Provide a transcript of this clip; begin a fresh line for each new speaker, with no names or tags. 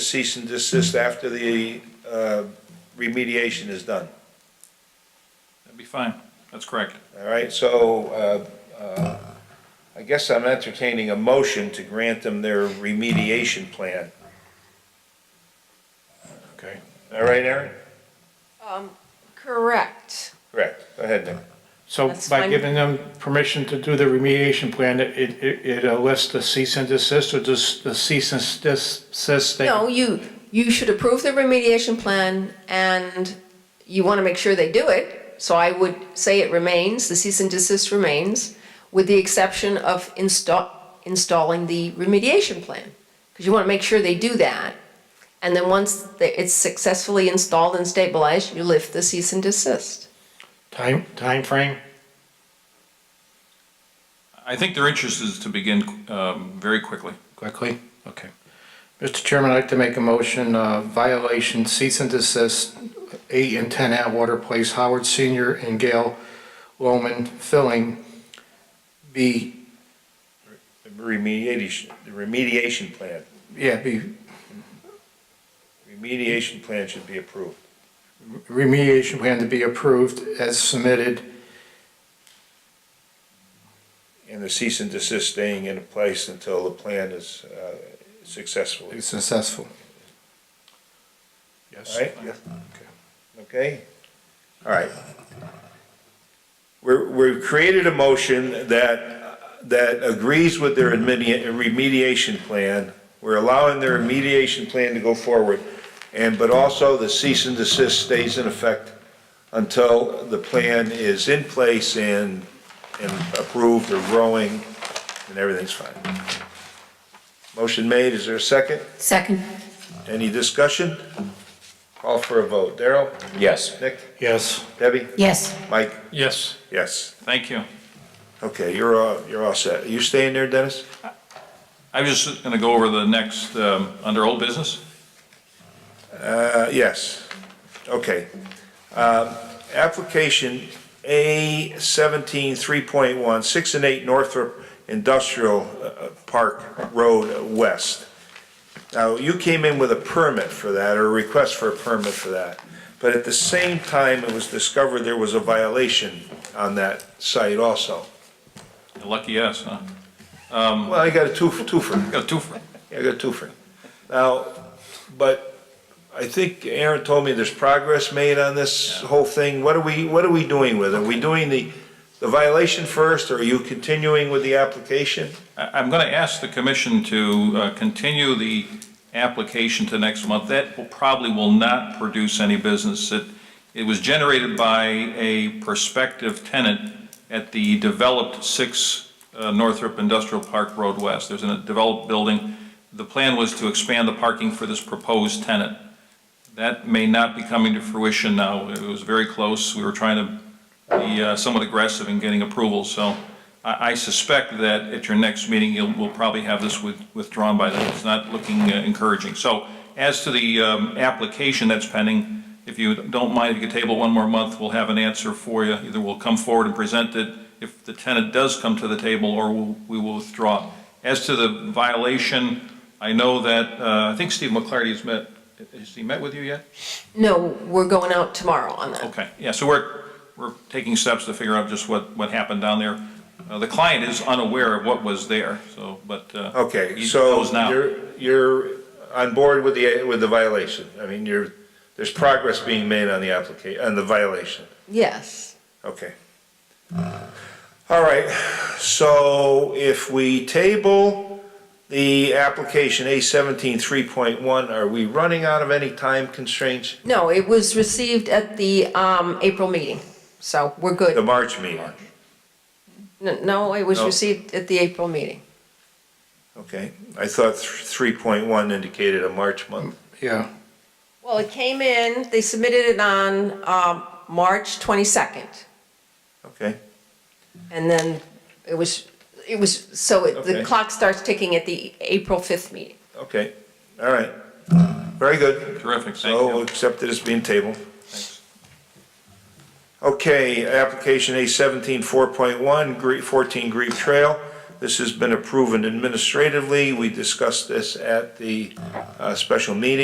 cease and desist after the uh, remediation is done.
That'd be fine. That's correct.
All right, so uh, uh, I guess I'm entertaining a motion to grant them their remediation plan.
Okay.
All right, Aaron?
Um, Correct.
Correct. Go ahead, Nick.
So
That's
by
fine.
giving them permission to do the remediation plan, it, it, it uh, lists the cease and desist or just the cease and desist? they-
No, you, you should approve the remediation plan and you want to make sure they do it. So I would say it remains, the cease and desist remains, with the exception of install, installing the remediation plan. Because you want to make sure they do that. And then once they- it's successfully installed and stabilized, you lift the cease and desist.
Time, timeframe?
I think their interest is to begin um, very quickly.
Quickly? Okay. Mr. Chairman, I'd like to make a motion, uh, violation cease and desist, eight and ten Atwater Place, Howard Senior and Gail Loman filling. Be,
The remediation, the remediation plan.
yeah, be,
Remediation plan should be approved.
remediation plan to be approved as submitted.
And the cease and desist staying in place until the plan is uh, successfully,
It's successful.
all right? Okay? All right. We're, we've created a motion that, that agrees with their remedi- remediation plan. We're allowing their remediation plan to go forward, and, but also the cease and desist stays in effect until the plan is in place and, and approved or growing, and everything's fine. Motion made, is there a second?
Second.
Any discussion? Call for a vote. Daryl?
Yes.
Nick?
Yes.
Debbie?
Yes.
Mike?
Yes.
Yes.
Thank you.
Okay, you're all, you're all set. You staying there, Dennis?
I was just going to go over the next, um, under old business.
Uh, yes. Okay. Um, Application A seventeen three point one, six and eight Northrop Industrial uh, Park Road West. Now, you came in with a permit for that, or a request for a permit for that. But at the same time, it was discovered there was a violation on that site also.
Lucky us, huh?
Well, I got a two, twofer.
Got two for,
Yeah, I got two for you. Now, but I think Aaron told me there's progress made on this whole thing. What are we, what are we doing with it? Are we doing the, the violation first, or are you continuing with the application?
I- I'm going to ask the commission to uh, continue the application to next month. That will, probably will not produce any business. It, it was generated by a prospective tenant at the developed 6 uh, Northrop Industrial Park Road West. There's a developed building. The plan was to expand the parking for this proposed tenant. That may not be coming to fruition now. It was very close. We were trying to be uh, somewhat aggressive in getting approval, so I, I suspect that at your next meeting, you'll, we'll probably have this with- withdrawn by then. It's not looking uh, encouraging. So as to the, um, application that's pending, if you don't mind, if you could table one more month, we'll have an answer for you. Either we'll come forward and present it if the tenant does come to the table, or we'll- we will withdraw. As to the violation, I know that, uh, I think Steve McClarty has met, has he met with you yet?
No, we're going out tomorrow on that.
Okay, yeah, so we're, we're taking steps to figure out just what, what happened down there. Uh, The client is unaware of what was there, so, but. uh,
Okay,
he
so
knows now.
you're, you're on board with the, with the violation. I mean, you're, there's progress being made on the applica, on the violation.
Yes.
Okay. All right, so if we table the application A seventeen three point one, are we running out of any time constraints?
No, it was received at the um, April meeting, so we're
The
good.
March meeting,
N- No, it was
No.
received at the April meeting.
okay? I thought three point one indicated a March month.
Yeah,
Well, it came in, they submitted it on um, March 22nd,
Okay,
and then it was, it was, so it- the
Okay.
clock starts ticking at the April 5th meeting.
okay, all right. Very good.
Terrific, thank
So we'll
you.
accept it as being tabled.
Thanks.
Okay, application A seventeen four point one, Gre fourteen Grieve Trail. This has been approved administratively. We discussed this at the, uh, special meeting.